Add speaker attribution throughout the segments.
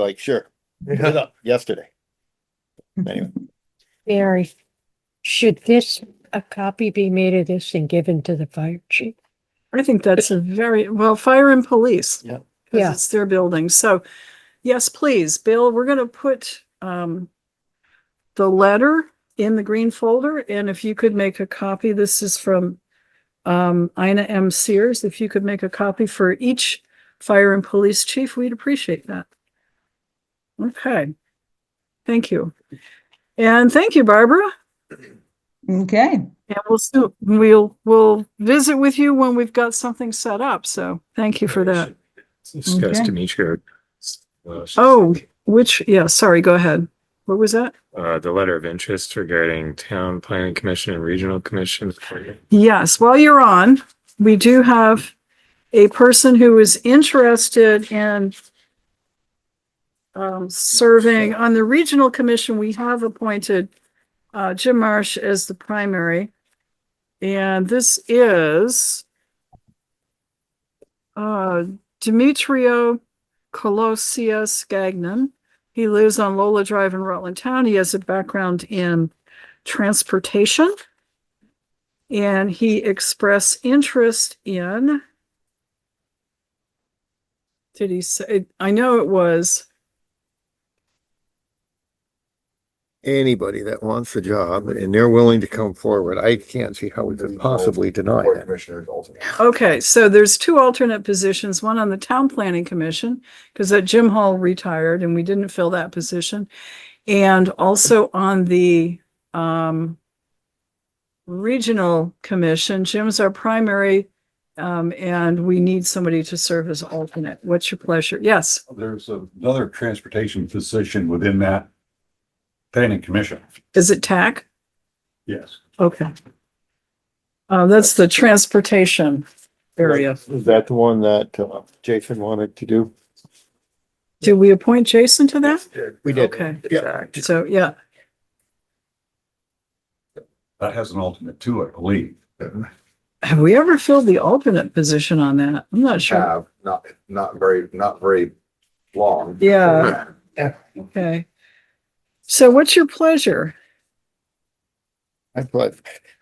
Speaker 1: like, sure, put it up yesterday. Anyway,
Speaker 2: Mary, should this, a copy be made of this and given to the fire chief?
Speaker 3: I think that's a very, well, fire and police.
Speaker 1: Yeah.
Speaker 2: Yeah.
Speaker 3: Because it's their building. So, yes, please, Bill, we're gonna put, um, the letter in the green folder, and if you could make a copy, this is from, um, Ina M. Sears, if you could make a copy for each fire and police chief, we'd appreciate that. Okay. Thank you. And thank you, Barbara.
Speaker 4: Okay,
Speaker 3: Yeah, we'll soon, we'll, we'll visit with you when we've got something set up, so thank you for that.
Speaker 5: Discuss
Speaker 4: Okay.
Speaker 5: Demetri.
Speaker 3: Oh, which, yeah, sorry, go ahead. What was that?
Speaker 5: Uh, the letter of interest regarding town planning commission and regional commission. for-
Speaker 3: Yes, while you're on, we do have a person who is interested in um, serving on the regional commission. We have appointed uh, Jim Marsh as the primary. And this is uh, Demetrio Colosius Gagnon. He lives on Lola Drive in Rutland Town. He has a background in transportation. And he expressed interest in. Did he say, I know it was,
Speaker 6: anybody that wants the job and they're willing to come forward, I can't see how we could possibly deny
Speaker 1: Board
Speaker 6: that.
Speaker 1: commissioners alternate.
Speaker 3: okay, so there's two alternate positions, one on the town planning commission. Cause that Jim Hall retired and we didn't fill that position. And also on the, um. Regional commission, Jim's our primary, um, and we need somebody to serve as alternate. What's your pleasure? Yes,
Speaker 7: There's another transportation position within that planning commission.
Speaker 3: is it TAC?
Speaker 7: Yes.
Speaker 3: Okay. Uh, that's the transportation area.
Speaker 1: Is that the one that uh, Jason wanted to do?
Speaker 3: Did we appoint Jason to that?
Speaker 6: We did.
Speaker 3: Okay,
Speaker 6: Yeah.
Speaker 3: so, yeah,
Speaker 7: That has an alternate too, I believe.
Speaker 3: have we ever filled the alternate position on that? I'm not sure.
Speaker 8: have, not, not very, not very long.
Speaker 3: Yeah, okay. So what's your pleasure?
Speaker 6: I thought,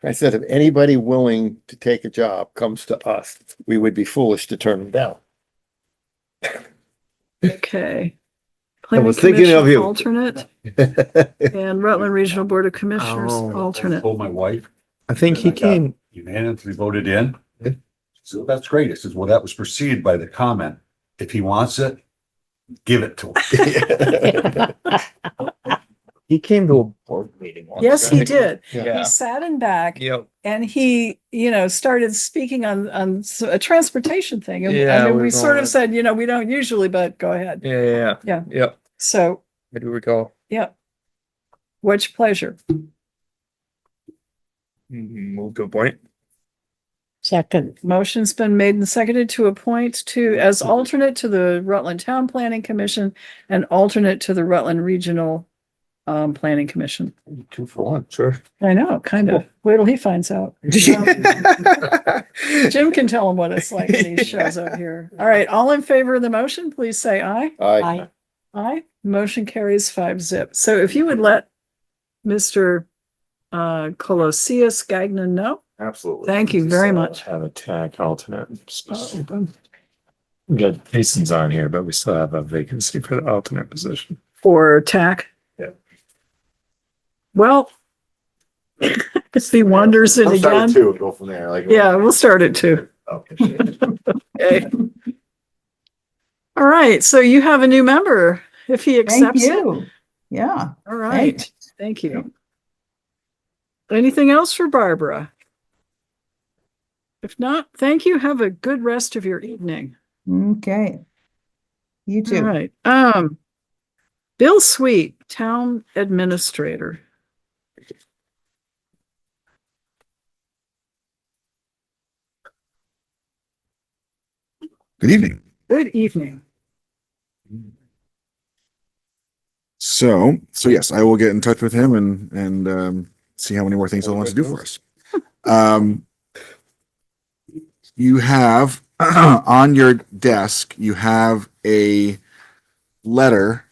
Speaker 6: I said, if anybody willing to take a job comes to us, we would be foolish to turn them down.
Speaker 3: Okay.
Speaker 6: I was
Speaker 3: Planning
Speaker 6: thinking of
Speaker 3: Commission
Speaker 6: you.
Speaker 3: Alternate
Speaker 6: I
Speaker 3: and Rutland Regional Board of Commissioners
Speaker 6: Oh.
Speaker 3: alternate.
Speaker 7: Told my wife
Speaker 6: think he came,
Speaker 7: unanimously voted in.
Speaker 6: Yeah.
Speaker 7: So that's great. I says, well, that was preceded by the comment. If he wants it, give it to him.
Speaker 6: he came to a
Speaker 1: Board meeting. on
Speaker 3: Yes, he
Speaker 1: that.
Speaker 3: did. He
Speaker 1: Yeah.
Speaker 3: sat in back
Speaker 6: Yep.
Speaker 3: and he, you know, started speaking on, on s- a transportation thing. And
Speaker 6: Yeah,
Speaker 3: I mean,
Speaker 6: we
Speaker 3: we
Speaker 6: were
Speaker 3: sort
Speaker 6: going-
Speaker 3: of said, you know, we don't usually, but go ahead.
Speaker 6: Yeah, yeah,
Speaker 3: Yeah.
Speaker 6: Yep.
Speaker 3: So,
Speaker 6: I do recall.
Speaker 3: yeah. What's your pleasure?
Speaker 6: Move to a Mm-hmm. point.
Speaker 2: Second,
Speaker 3: Motion's been made and seconded to appoint to, as
Speaker 6: Mm-hmm.
Speaker 3: alternate to the Rutland Town Planning Commission and alternate to the Rutland Regional um, Planning Commission.
Speaker 6: Two for one, sure.
Speaker 3: I know, kind of. Wait till he finds out. Jim can tell him what it's like when he shows up here. All right, all in favor of the motion, please say aye.
Speaker 1: Aye.
Speaker 2: I,
Speaker 3: Aye, motion carries five zip. So if you would let Mr. uh, Colosius Gagnon know,
Speaker 8: Absolutely.
Speaker 3: thank you very much. Oh,
Speaker 5: Have a TAC alternate. Good, Jason's on here, but we still have a vacancy for the alternate position.
Speaker 3: Or TAC.
Speaker 5: Yeah.
Speaker 3: Well, if he wanders in
Speaker 8: I'll start at
Speaker 3: again,
Speaker 8: two and go from there, like.
Speaker 3: yeah, we'll start at two.
Speaker 8: Okay.
Speaker 3: Okay. All right, so you have a new member, if he
Speaker 4: thank
Speaker 3: accepts it.
Speaker 4: you. Yeah,
Speaker 3: All right, thank you. Anything else for Barbara? If not, thank you. Have a good rest of your evening.
Speaker 4: okay. You
Speaker 3: All
Speaker 4: too.
Speaker 3: right, um. Bill Sweet, Town Administrator.
Speaker 9: Good evening.
Speaker 3: Good evening.
Speaker 9: So, so yes, I will get in touch with him and, and, um, see how many more things he wants to do for us. Um, you have on your desk, you have a letter